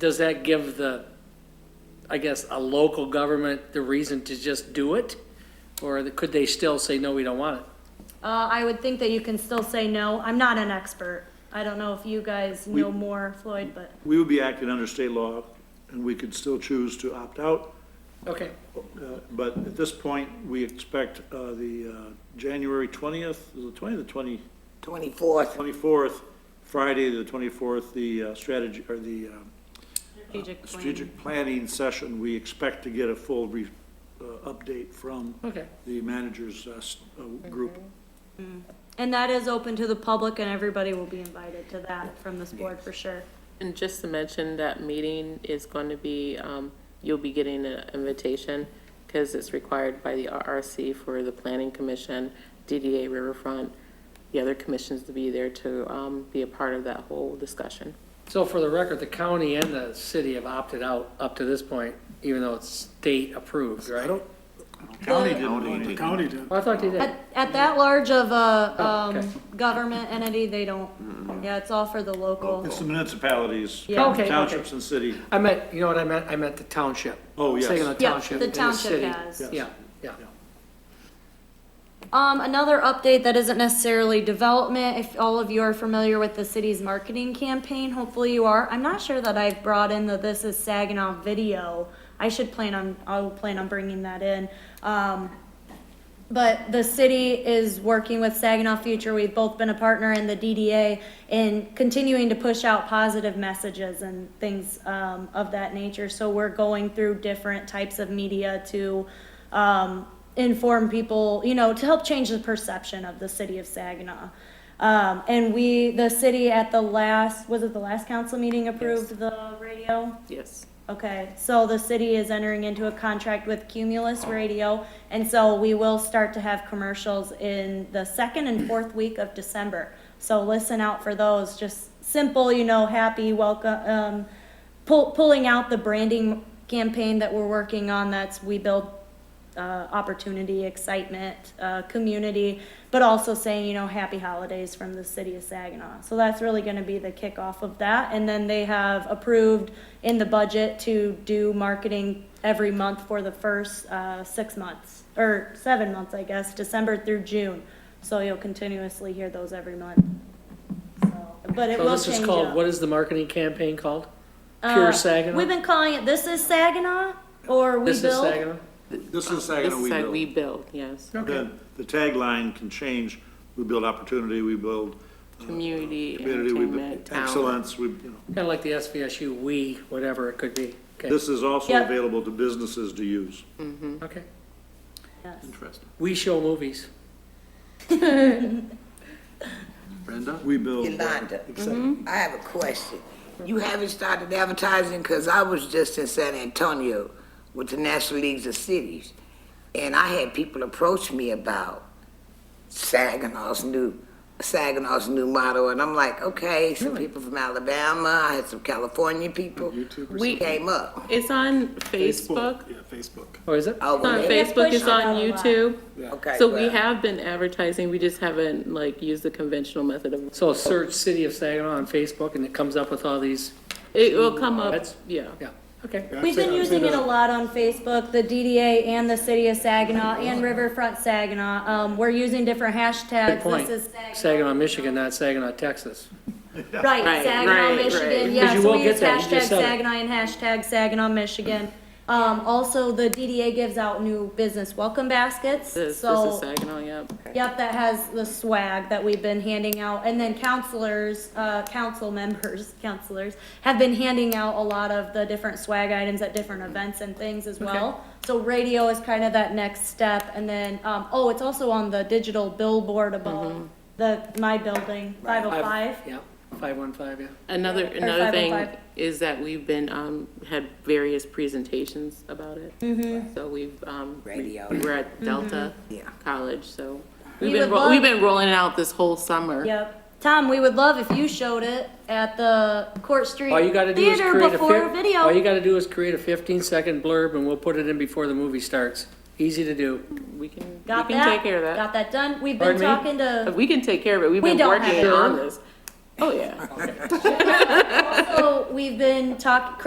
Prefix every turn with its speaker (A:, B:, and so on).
A: does that give the, I guess, a local government the reason to just do it? Or could they still say, no, we don't want it?
B: Uh, I would think that you can still say no. I'm not an expert. I don't know if you guys know more, Floyd, but
C: We would be acting under state law, and we could still choose to opt out,
A: Okay,
C: uh, but at this point, we expect uh, the uh, January 20th, is it 20th or 20, Oh,
D: 24th.
C: 24th, Friday, the 24th, the uh, strategy, or the um,
B: strategic plan.
C: Uh, strategic planning session, we expect to get a full re- uh, update from
A: okay.
C: the managers' uh, s- uh, group.
B: And that is open to the public and everybody will be invited to that from this board for sure.
E: And just to mention, that meeting is going to be, um, you'll be getting an invitation because it's required by the RRC for the Planning Commission, DDA Riverfront, the other commissions to be there to um, be a part of that whole discussion.
A: So for the record, the county and the city have opted out up to this point, even though it's state approved, right? Well,
C: County didn't do anything.
F: County did.
A: I thought they did.
B: At, at that large of a,
A: Oh, okay.
B: um, government entity, they don't, yeah, it's all for the local.
C: It's the municipalities,
B: Yeah.
A: Okay, okay.
C: townships and city.
A: I meant, you know what I meant? I meant the township.
C: Oh, yes.
A: Saying the
B: Yeah,
A: township
B: the
A: and
B: township
A: city.
B: has.
A: Yeah, yeah.
B: Um, another update that isn't necessarily development, if all of you are familiar with the city's marketing campaign, hopefully you are. I'm not sure that I've brought in the This Is Saginaw video. I should plan on, I'll plan on bringing that in. Um, but the city is working with Saginaw Future. We've both been a partner in the DDA in continuing to push out positive messages and things um, of that nature. So we're going through different types of media to um, inform people, you know, to help change the perception of the city of Saginaw. Um, and we, the city at the last, was it the last council meeting approved the radio?
E: Yes.
B: Okay, so the city is entering into a contract with Cumulus Radio, and so we will start to have commercials in the second and fourth week of December. So listen out for those, just simple, you know, happy, welcome, um, pull, pulling out the branding campaign that we're working on, that's We Build uh, opportunity, excitement, uh, community, but also saying, you know, happy holidays from the city of Saginaw. So that's really going to be the kickoff of that. And then they have approved in the budget to do marketing every month for the first uh, six months, or seven months, I guess, December through June. So you'll continuously hear those every month. So, But it
A: So
B: will
A: this is
B: change
A: called,
B: up.
A: what is the marketing campaign called? Pure
B: Uh,
A: Saginaw?
B: We've been calling it This is Saginaw, or We
A: This is
B: Build.
A: Saginaw?
C: This is
E: This
C: Saginaw
E: is
C: We
E: how
C: Build.
E: we build, yes.
C: The, the tagline can change. We build opportunity, we build uh,
E: Community,
C: community, we build
E: entertainment, talent.
C: excellence, we, you know.
A: Kind of like the SVSU, we, whatever it could be. Okay,
C: This is also
B: Yeah.
C: available to businesses to use.
A: okay.
B: Yes.
A: We show movies.
C: We build. uh,
D: Yolanda. Mm-hmm.
C: exciting-
D: I have a question. You haven't started advertising, because I was just in San Antonio with the National Leagues of Cities, and I had people approach me about Saginaw's new, Saginaw's new motto, and I'm like, okay, some people from Alabama, I had some California people.
E: We-
D: Came up.
E: It's on Facebook.
F: Yeah, Facebook.
A: Oh, is it?
D: Oh,
E: It's on
D: well,
B: They
E: Facebook,
B: push
E: it's on
B: it out a lot.
E: YouTube.
D: okay.
E: So we
D: well,
E: have been advertising, we just haven't like used the conventional method of,
A: So search City of Saginaw on Facebook and it comes up with all these,
E: it will come up,
A: That's-
E: yeah.
A: yeah, okay.
B: We've been
F: Actually, I've
B: using
F: seen
B: it a lot on Facebook, the DDA and the city of Saginaw and Riverfront Saginaw. Um, we're using different
A: Good
B: hashtags.
A: point.
B: This is Saginaw.
A: Saginaw, Michigan, not Saginaw, Texas.
B: Right,
E: Right,
B: Saginaw,
E: right,
B: Michigan,
E: right.
B: yeah,
A: Because you
B: so
A: won't
B: we
A: get
B: use
A: that, you
B: hashtag
A: just said it.
B: Saginaw and hashtag Saginaw, Michigan. Um, also, the DDA gives out new business welcome baskets,
E: This, this is
B: so,
E: Saginaw, yep.
B: yep, that has the swag that we've been handing out. And then counselors, uh, council members, counselors, have been handing out a lot of the different swag items at different events and things as well. So radio is kind of that next step, and then, um, oh, it's also on the digital billboard
A: Mm-hmm.
B: above the, my building, five oh five.
A: Yeah, five one five, yeah.
E: Another,
B: Or
E: another thing
B: 505.
E: is that we've been, um, had various presentations about it.
B: Mm-hmm.
E: So we've, um, we
D: Radio.
E: were at Delta
D: Yeah.
E: College, so
B: We
E: we've
B: would
E: been, ro-
B: love-
E: we've been rolling it out this whole summer.
B: Yep. Tom, we would love if you showed it at the Court Street
A: All you gotta do is
B: Theater
A: create a.
B: before
A: fif-
B: video.
A: All you gotta do is create a fifteen second blurb and we'll put it in before the movie starts. Easy to do.
E: We can, we
B: Got
E: can
B: that?
E: take care of that.
B: Got that done. We've been
A: Pardon me?
B: talking to.
E: We can take care of it, we've
B: We
E: been
B: don't have
E: working
B: it.
E: on this. Oh, yeah.
B: So we've been talking.